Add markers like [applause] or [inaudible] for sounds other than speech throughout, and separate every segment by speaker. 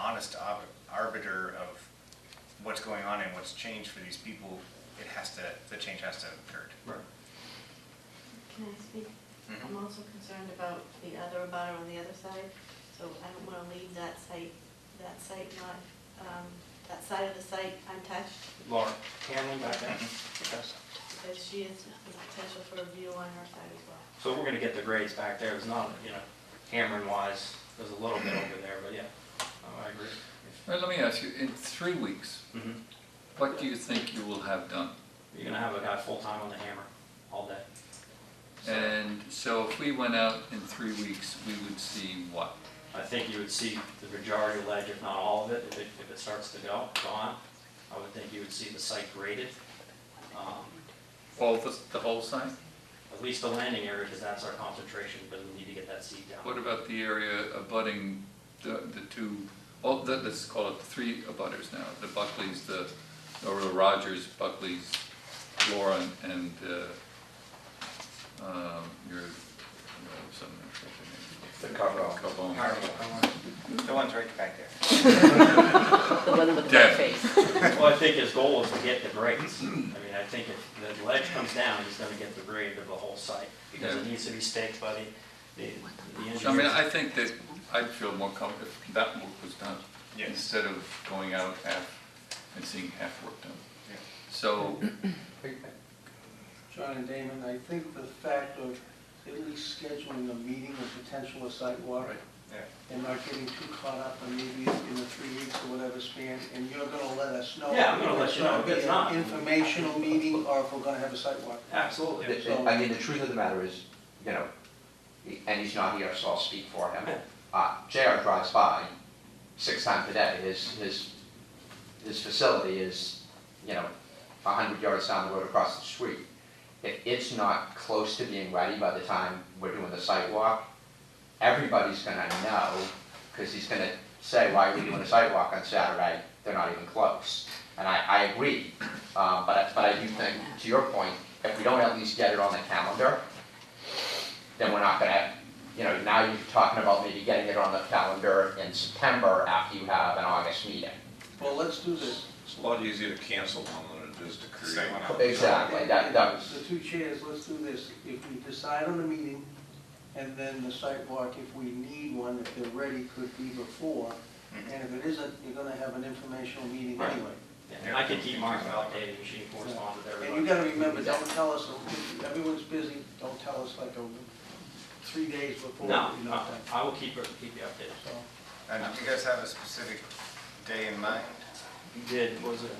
Speaker 1: honest ob- arbiter of what's going on and what's changed for these people, it has to, the change has to have occurred.
Speaker 2: Right.
Speaker 3: Can I speak?
Speaker 1: Mhm.
Speaker 3: I'm also concerned about the other abutter on the other side, so I don't wanna leave that site, that site not, um, that side of the site untouched,
Speaker 2: Laura, Hanlon back there. Yes.
Speaker 3: because she is the potential for a view on her side as well.
Speaker 2: So we're gonna get the grades back there, it's not, you know, hammering wise, there's a little bit over there, but yeah, Oh, I agree.
Speaker 4: Well, let me ask you, in three weeks,
Speaker 2: Mhm.
Speaker 4: what do you think you will have done?
Speaker 2: You're gonna have a guy full-time on the hammer all day. So
Speaker 4: And so if we went out in three weeks, we would see what?
Speaker 2: I think you would see the majority of ledge, if not all of it, if it, if it starts to go, gone. I would think you would see the site graded, um,
Speaker 4: All the, the whole sign?
Speaker 2: at least the landing area, because that's our concentration, but we need to get that seed down.
Speaker 4: What about the area abutting the, the two, oh, the- let's call it the three abutters now, the Buckleys, the, or the Rogers, Buckleys, Laura, and, uh, um, your, you know, something,
Speaker 5: The Carvel.
Speaker 4: I forget your name. Carbone.
Speaker 1: The ones right back there.
Speaker 6: The one with the
Speaker 4: Deb.
Speaker 6: red face.
Speaker 2: Well, I think his goal is to get the grades. I mean, I think if the ledge comes down, he's gonna get the grade of the whole site, because it
Speaker 4: Yeah.
Speaker 2: needs to be staked by the, the the engineers.
Speaker 4: So, I mean, I think that I'd feel more comfortable if that work was done.
Speaker 1: Yes.
Speaker 4: Instead of going out half and seeing half work done.
Speaker 1: Yeah.
Speaker 4: So,
Speaker 7: John and Damon, I think the fact of at least scheduling a meeting of potential a site walk
Speaker 4: Right,
Speaker 1: yeah.
Speaker 7: and not getting too caught up in maybe in the three weeks or whatever span, and you're gonna let us know.
Speaker 2: Yeah, I'm gonna let you know if
Speaker 7: If
Speaker 2: it's
Speaker 7: it's
Speaker 2: not.
Speaker 7: gonna be an informational meeting or if we're gonna have a site walk.
Speaker 2: Absolutely.
Speaker 5: It- it- I mean, the truth of the matter is, you know, he- and he's not here, so I'll speak for him. Uh, JR drives by six times a day. His, his, his facility is, you know, a hundred yards down the road across the street. If it's not close to being ready by the time we're doing the sidewalk, everybody's gonna know, because he's gonna say, why are we doing a sidewalk on Saturday? They're not even close. And I, I agree, uh, but, I- but I do think, to your point, if we don't at least get it on the calendar, then we're not gonna, you know, now you're talking about maybe getting it on the calendar in September after you have an August meeting.
Speaker 7: Well, let's do this.
Speaker 8: It's a lot easier to cancel one than it is to create
Speaker 1: Same.
Speaker 8: one.
Speaker 5: Exactly, that, that was,
Speaker 7: The two chairs, let's do this. If we decide on a meeting and then the site walk, if we need one, if they're ready, could be before. And if it isn't, you're gonna have an informational meeting
Speaker 2: Mm-hmm. Right.
Speaker 7: anyway.
Speaker 2: Yeah, I could keep Mark updated, and she can correspond with
Speaker 7: And you
Speaker 2: everybody.
Speaker 7: gotta remember, don't tell us, everyone's busy, don't tell us like a, three days before.
Speaker 2: No,
Speaker 7: you know,
Speaker 2: no,
Speaker 7: that.
Speaker 2: I will keep, her- keep you updated.
Speaker 7: So,
Speaker 1: And do you guys have a specific day in mind?
Speaker 2: You did, what was it?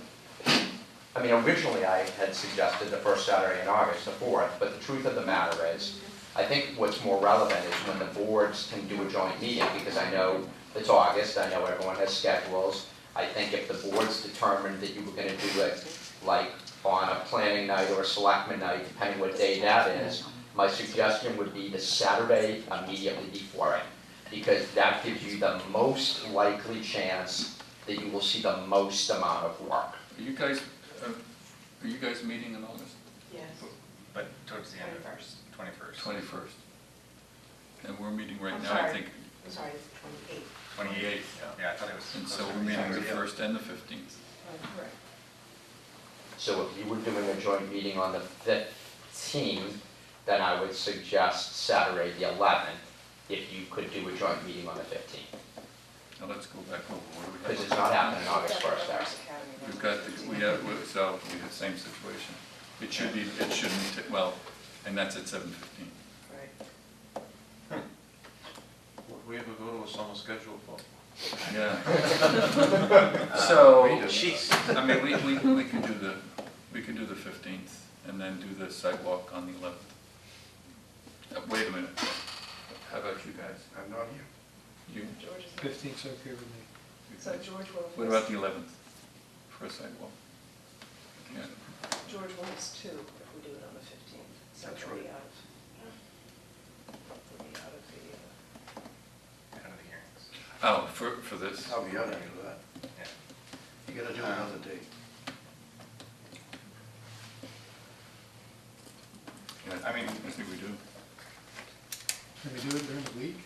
Speaker 5: I mean, originally I had suggested the first Saturday in August, the fourth, but the truth of the matter is, I think what's more relevant is when the boards can do a joint meeting, because I know it's August, I know everyone has schedules. I think if the boards determined that you were gonna do it, like, on a planning night or a selectman night, depending what day that is, my suggestion would be the Saturday immediately before it, because that gives you the most likely chance that you will see the most amount of work.
Speaker 4: are you guys, uh, are you guys meeting in August
Speaker 3: Yes.
Speaker 1: But towards the end of twenty-first,
Speaker 4: twenty-first? And we're meeting right
Speaker 6: I'm
Speaker 4: now, I
Speaker 6: sorry.
Speaker 4: think,
Speaker 6: I'm sorry, twenty-eight.
Speaker 1: twenty-eighth. Yeah, I thought it was.
Speaker 4: and so
Speaker 1: closer
Speaker 4: we're
Speaker 1: to
Speaker 4: meeting the
Speaker 1: Yeah.
Speaker 4: first and the fifteenth.
Speaker 6: Correct.
Speaker 5: So if you were doing a joint meeting on the fifteenth, then I would suggest Saturday the eleventh, if you could do a joint meeting on the fifteenth,
Speaker 4: Now, let's go back over. What do we have?
Speaker 5: because it's not happening August first, Eric.
Speaker 4: We've got, the- we have, we- so we have the same situation. It should be, it shouldn't, ta- well, and that's at seven fifteen.
Speaker 8: Would we ever go to a summer schedule for?
Speaker 4: Yeah. [laughs] So,
Speaker 1: Oh,
Speaker 8: Wait a minute.
Speaker 4: I mean, we, we, we can do the, we can do the fifteenth and then do the sidewalk on the eleventh. Wait a minute. How about you guys?
Speaker 8: I'm not here.
Speaker 4: You,
Speaker 9: Fifteenth's okay with me.
Speaker 6: So George
Speaker 4: what
Speaker 6: will,
Speaker 4: about the eleventh for a sidewalk? Yeah.
Speaker 6: George wants two, if we do it on the fifteenth, so
Speaker 8: That's
Speaker 6: we'll be
Speaker 8: right.
Speaker 6: out of, we'll be out of the, uh,
Speaker 1: Out of the hearings.
Speaker 4: Oh, for, for this?
Speaker 8: I'll be out of here for that.
Speaker 1: Yeah.
Speaker 8: You gotta do another day.
Speaker 4: Yeah,
Speaker 1: I mean-
Speaker 4: I think we do.
Speaker 9: Can we do it during the week?